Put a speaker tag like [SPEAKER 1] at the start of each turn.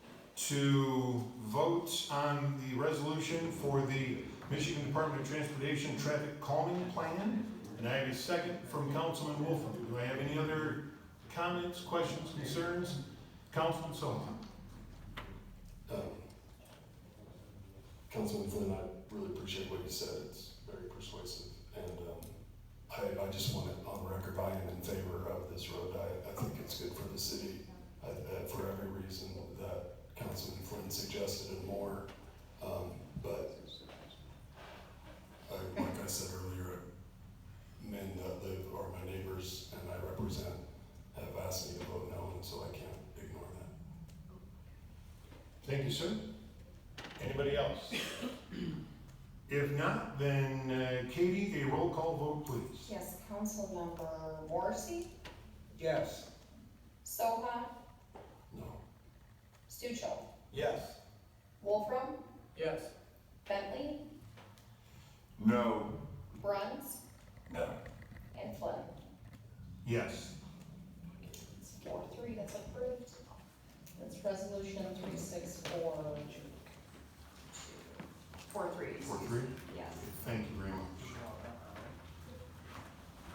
[SPEAKER 1] to vote on the resolution for the Michigan Department of Transportation Traffic Calming Plan. And I have a second from Councilman Wolfen. Do I have any other comments, questions, concerns? Councilman Sullivan?
[SPEAKER 2] Um, Councilman Flynn, I really appreciate what you said, it's very persuasive, and um, I, I just want it on record, I am in favor of this road, I, I think it's good for the city, I- uh, for every reason that Councilman Flynn suggested and more, Um, but I- like I said earlier, men that live are my neighbors and I represent have asked me to vote no, and so I can't ignore that.
[SPEAKER 1] Thank you, sir. Anybody else? If not, then uh, Katie, a roll call vote, please.
[SPEAKER 3] Yes, Councilmember Morrissey,
[SPEAKER 4] Yes.
[SPEAKER 3] Soha,
[SPEAKER 2] No.
[SPEAKER 3] Stuchel,
[SPEAKER 4] Yes.
[SPEAKER 3] Wolfram,
[SPEAKER 4] Yes.
[SPEAKER 3] Bentley,
[SPEAKER 5] No.
[SPEAKER 3] Bruns,
[SPEAKER 5] No.
[SPEAKER 3] and Flynn.
[SPEAKER 1] Yes.
[SPEAKER 3] It's Four, three, that's approved. That's resolution three, six, four, two. Four, three.
[SPEAKER 1] Four, three.
[SPEAKER 3] Yes.
[SPEAKER 1] Thank you.